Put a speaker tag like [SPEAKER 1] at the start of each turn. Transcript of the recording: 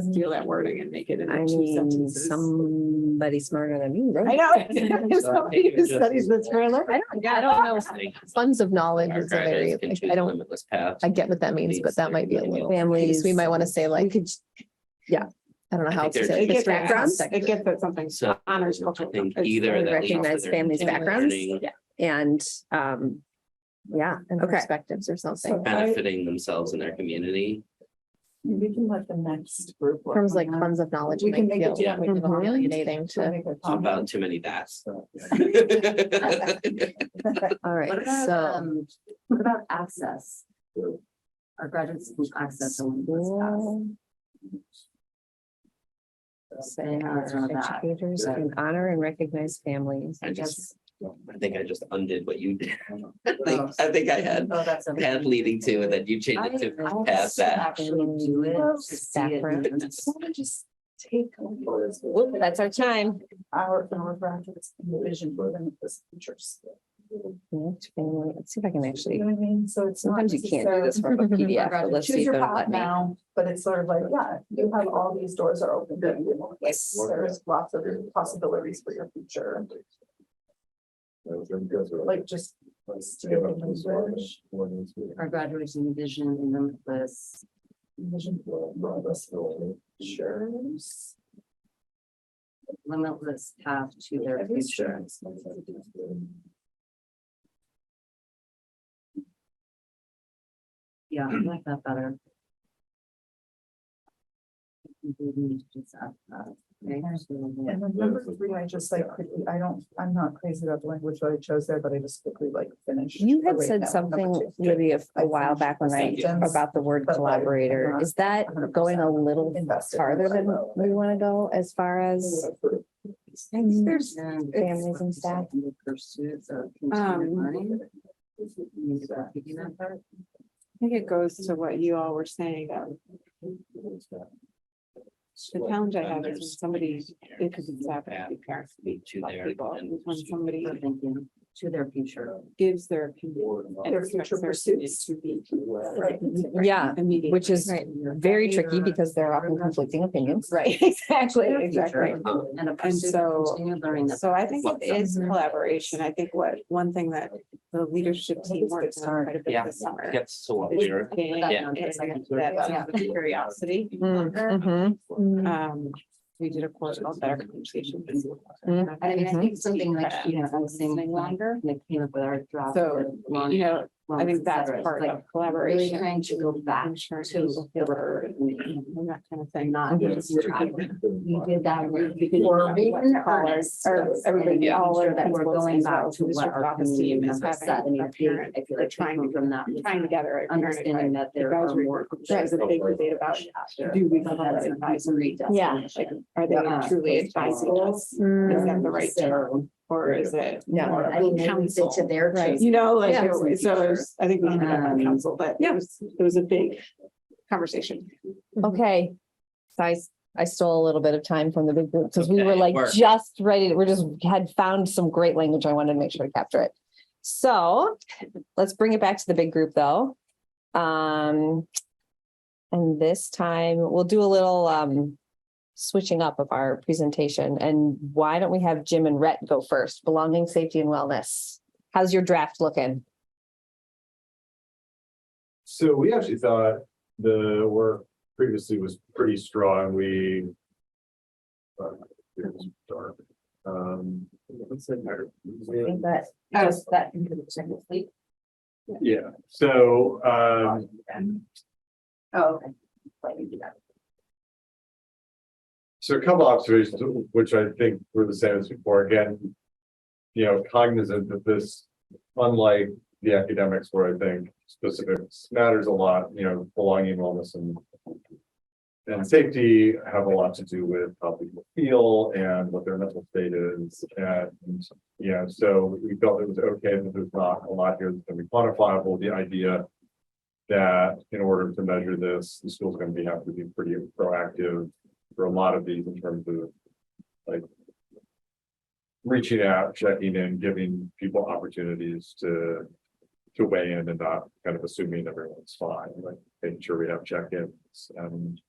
[SPEAKER 1] steal that wording and make it
[SPEAKER 2] I
[SPEAKER 1] in two
[SPEAKER 2] mean,
[SPEAKER 1] sentences.
[SPEAKER 2] somebody smarter than me.
[SPEAKER 1] I
[SPEAKER 2] wrote it.
[SPEAKER 1] know. If Somebody who studies this for a living.
[SPEAKER 3] I don't, I don't know. Funds of knowledge is a very, like, I don't, I get what that means, but that might be a little,
[SPEAKER 2] Families.
[SPEAKER 3] we might want to say
[SPEAKER 2] We
[SPEAKER 3] like,
[SPEAKER 2] could,
[SPEAKER 3] I don't know
[SPEAKER 4] I
[SPEAKER 3] how
[SPEAKER 4] think
[SPEAKER 3] to
[SPEAKER 4] they're
[SPEAKER 3] say
[SPEAKER 1] It
[SPEAKER 3] it.
[SPEAKER 1] gets
[SPEAKER 3] history
[SPEAKER 1] that,
[SPEAKER 3] and
[SPEAKER 1] from-
[SPEAKER 3] context.
[SPEAKER 1] it gets that something
[SPEAKER 4] So
[SPEAKER 1] honors
[SPEAKER 4] I
[SPEAKER 1] cultural.
[SPEAKER 4] think
[SPEAKER 1] it's
[SPEAKER 4] either that leads to
[SPEAKER 2] recognize
[SPEAKER 4] their
[SPEAKER 2] families'
[SPEAKER 4] intended
[SPEAKER 2] backgrounds.
[SPEAKER 4] learning,
[SPEAKER 2] and, um, yeah,
[SPEAKER 3] And
[SPEAKER 2] okay.
[SPEAKER 3] perspectives or something.
[SPEAKER 4] Benefiting themselves and their community.
[SPEAKER 5] We can let the next group. work
[SPEAKER 3] Terms
[SPEAKER 5] on
[SPEAKER 3] like
[SPEAKER 5] that.
[SPEAKER 3] funds of knowledge
[SPEAKER 5] We
[SPEAKER 3] might
[SPEAKER 5] can make it
[SPEAKER 3] feel
[SPEAKER 5] to.
[SPEAKER 3] a little alienating to.
[SPEAKER 4] Talk about too many that's.
[SPEAKER 3] All
[SPEAKER 5] What
[SPEAKER 3] right,
[SPEAKER 5] about,
[SPEAKER 3] so
[SPEAKER 5] um, what about access? Our graduate school access. to Olympus Pass. Say how it's on that.
[SPEAKER 2] Educators can honor and recognize families.
[SPEAKER 4] I just,
[SPEAKER 5] Yes.
[SPEAKER 4] I think I just undid what you did. I think, I think I had
[SPEAKER 5] Oh, that's. okay.
[SPEAKER 4] path leading to and then you
[SPEAKER 5] I-
[SPEAKER 4] changed it
[SPEAKER 5] I
[SPEAKER 4] to path
[SPEAKER 5] should
[SPEAKER 4] that.
[SPEAKER 5] Actually do it. to see it.
[SPEAKER 2] Saffron.
[SPEAKER 5] I just wanna Just take. over this-
[SPEAKER 2] That's our time.
[SPEAKER 5] Our, our graduates and the vision for them, this future. school. You
[SPEAKER 2] Let's see if I can actually,
[SPEAKER 5] know what I mean? So it's. not
[SPEAKER 2] sometimes you can't do this
[SPEAKER 5] necessarily-
[SPEAKER 2] from a PDF, but let's see
[SPEAKER 5] Choose
[SPEAKER 2] if
[SPEAKER 5] your
[SPEAKER 2] it'll
[SPEAKER 5] path
[SPEAKER 2] let me.
[SPEAKER 5] now, but it's sort of like, yeah, you have all these doors are open. to you.
[SPEAKER 2] Yes.
[SPEAKER 5] There's lots of possibilities for your future, like just. steer them and bridge.
[SPEAKER 6] Our graduation vision in Olympus.
[SPEAKER 5] Vision for all of us, Sure.
[SPEAKER 6] limitless path to their future. Yeah, I like that better.
[SPEAKER 5] And then number three, I just like quickly, I don't, I'm not crazy about the language that I chose there, but I just quickly like finished.
[SPEAKER 2] You had
[SPEAKER 5] the way
[SPEAKER 2] said
[SPEAKER 5] that number
[SPEAKER 2] something,
[SPEAKER 5] two.
[SPEAKER 2] Libby, a a while back when I,
[SPEAKER 5] Thank you.
[SPEAKER 2] about the word
[SPEAKER 5] But, like,
[SPEAKER 2] collaborator.
[SPEAKER 5] not
[SPEAKER 2] Is that
[SPEAKER 5] 100%
[SPEAKER 2] going a little
[SPEAKER 5] Invested.
[SPEAKER 2] farther than
[SPEAKER 5] oh,
[SPEAKER 2] we want to go as far as?
[SPEAKER 5] There's.
[SPEAKER 2] Families and staff.
[SPEAKER 6] Pursuits of.
[SPEAKER 1] Um,
[SPEAKER 6] continued learning. You need to work in that part.
[SPEAKER 1] I think it goes to what you all were saying, um, the challenge I have is when somebody, because it's happening, parents
[SPEAKER 4] Me too
[SPEAKER 1] about
[SPEAKER 4] there.
[SPEAKER 1] people, is when somebody
[SPEAKER 6] So thinking To their future.
[SPEAKER 1] gives their opinion. and
[SPEAKER 5] Their
[SPEAKER 1] expects
[SPEAKER 5] future
[SPEAKER 1] opinion
[SPEAKER 5] pursuits.
[SPEAKER 1] To be. uh,
[SPEAKER 5] Right.
[SPEAKER 2] Yeah,
[SPEAKER 1] Immediate.
[SPEAKER 2] which is
[SPEAKER 3] Right.
[SPEAKER 2] very tricky because there are often conflicting opinions.
[SPEAKER 1] Right, exactly,
[SPEAKER 6] Their
[SPEAKER 1] exactly.
[SPEAKER 6] future And a pursuit
[SPEAKER 1] so-
[SPEAKER 6] of continued learning. that
[SPEAKER 1] So I think it is
[SPEAKER 6] Mm-hmm.
[SPEAKER 5] Mhm.
[SPEAKER 1] collaboration. I think what, one thing that the leadership team worked on quite a bit
[SPEAKER 4] Yeah.
[SPEAKER 1] this summer.
[SPEAKER 4] Gets so
[SPEAKER 1] is
[SPEAKER 4] weird.
[SPEAKER 1] being-
[SPEAKER 4] Yeah.
[SPEAKER 1] and That sense of curiosity.
[SPEAKER 2] Mhm,
[SPEAKER 6] Mm-hmm.
[SPEAKER 1] Um, we did a course called Better Communication.
[SPEAKER 2] Mm.
[SPEAKER 6] I mean, I
[SPEAKER 2] Mhm.
[SPEAKER 6] think Mm-hmm. something like, you know, I was saying longer, and it came up with our draft.
[SPEAKER 1] So,
[SPEAKER 6] with long-
[SPEAKER 1] You know, I
[SPEAKER 6] longs,
[SPEAKER 1] think
[SPEAKER 6] et
[SPEAKER 1] that's
[SPEAKER 6] cetera. It's
[SPEAKER 1] part
[SPEAKER 6] like
[SPEAKER 1] of
[SPEAKER 6] Really
[SPEAKER 1] collaboration.
[SPEAKER 6] trying to go back
[SPEAKER 1] Insurance
[SPEAKER 6] to. the
[SPEAKER 1] word
[SPEAKER 6] word and
[SPEAKER 1] and that kind of thing.
[SPEAKER 6] Not.
[SPEAKER 5] Yeah.
[SPEAKER 6] just try- You did that. really good
[SPEAKER 1] Or
[SPEAKER 6] job.
[SPEAKER 1] what the callers, or
[SPEAKER 6] Yes,
[SPEAKER 1] uh, everybody,
[SPEAKER 6] and making
[SPEAKER 1] all
[SPEAKER 6] sure
[SPEAKER 1] our
[SPEAKER 6] that we're
[SPEAKER 1] principals
[SPEAKER 6] going
[SPEAKER 1] as well,
[SPEAKER 6] back to
[SPEAKER 1] who's
[SPEAKER 6] what
[SPEAKER 1] your
[SPEAKER 6] our
[SPEAKER 1] office
[SPEAKER 6] community
[SPEAKER 1] team is
[SPEAKER 6] members
[SPEAKER 1] having
[SPEAKER 6] said. I mean,
[SPEAKER 1] a
[SPEAKER 6] I feel-
[SPEAKER 1] parent-
[SPEAKER 6] I feel like
[SPEAKER 1] trying
[SPEAKER 6] people
[SPEAKER 1] to-
[SPEAKER 6] From that.
[SPEAKER 1] Trying to gather. a parent
[SPEAKER 6] Understanding that there are
[SPEAKER 1] advisory
[SPEAKER 6] more.
[SPEAKER 1] That was a big debate about, do we call that advisory?
[SPEAKER 2] Yeah.
[SPEAKER 1] Like, Are they
[SPEAKER 6] Yeah.
[SPEAKER 1] truly advising us? Is that the right term
[SPEAKER 6] So,
[SPEAKER 1] or is it?
[SPEAKER 2] Yeah.
[SPEAKER 1] more of
[SPEAKER 6] I mean,
[SPEAKER 1] a
[SPEAKER 6] they leave it to
[SPEAKER 1] counsel?
[SPEAKER 6] their.
[SPEAKER 2] Right.
[SPEAKER 6] choice.
[SPEAKER 1] You know, like,
[SPEAKER 6] Yeah.
[SPEAKER 1] it was- so it was- I think we ended up on
[SPEAKER 6] Um,
[SPEAKER 1] council, but it was, it was a big conversation.
[SPEAKER 2] Okay. So I, s- I stole a little bit of time from the big group because we were
[SPEAKER 4] Okay,
[SPEAKER 2] like
[SPEAKER 4] work.
[SPEAKER 2] just ready. to- We're just had found some great language. I wanted to make sure to capture it. So let's bring it back to the big group though. Um, and this time we'll do a little, um, switching up of our presentation. And why don't we have Jim and Rhett go first? Belonging, safety and wellness. How's your draft looking?
[SPEAKER 7] So we actually thought the work previously was pretty strong. We. uh, It was dark. Um.
[SPEAKER 6] That, just that. Technically.
[SPEAKER 7] Yeah, so, um,
[SPEAKER 6] Oh, okay. Let me do that.
[SPEAKER 7] So a couple observations, which I think were the same as before, again. You know, cognizant that this, unlike the academics where I think specifics matters a lot, you know, belonging, wellness and. And safety have a lot to do with how people feel and what their mental state is and, you know, so we felt it was okay that there's not a lot here that's gonna be quantifiable, the idea. That in order to measure this, the school's gonna be, have to be pretty proactive for a lot of these in terms of like reaching out, checking in, giving people opportunities to to weigh in and not kind of assuming everyone's fine, like making sure we have check-ins and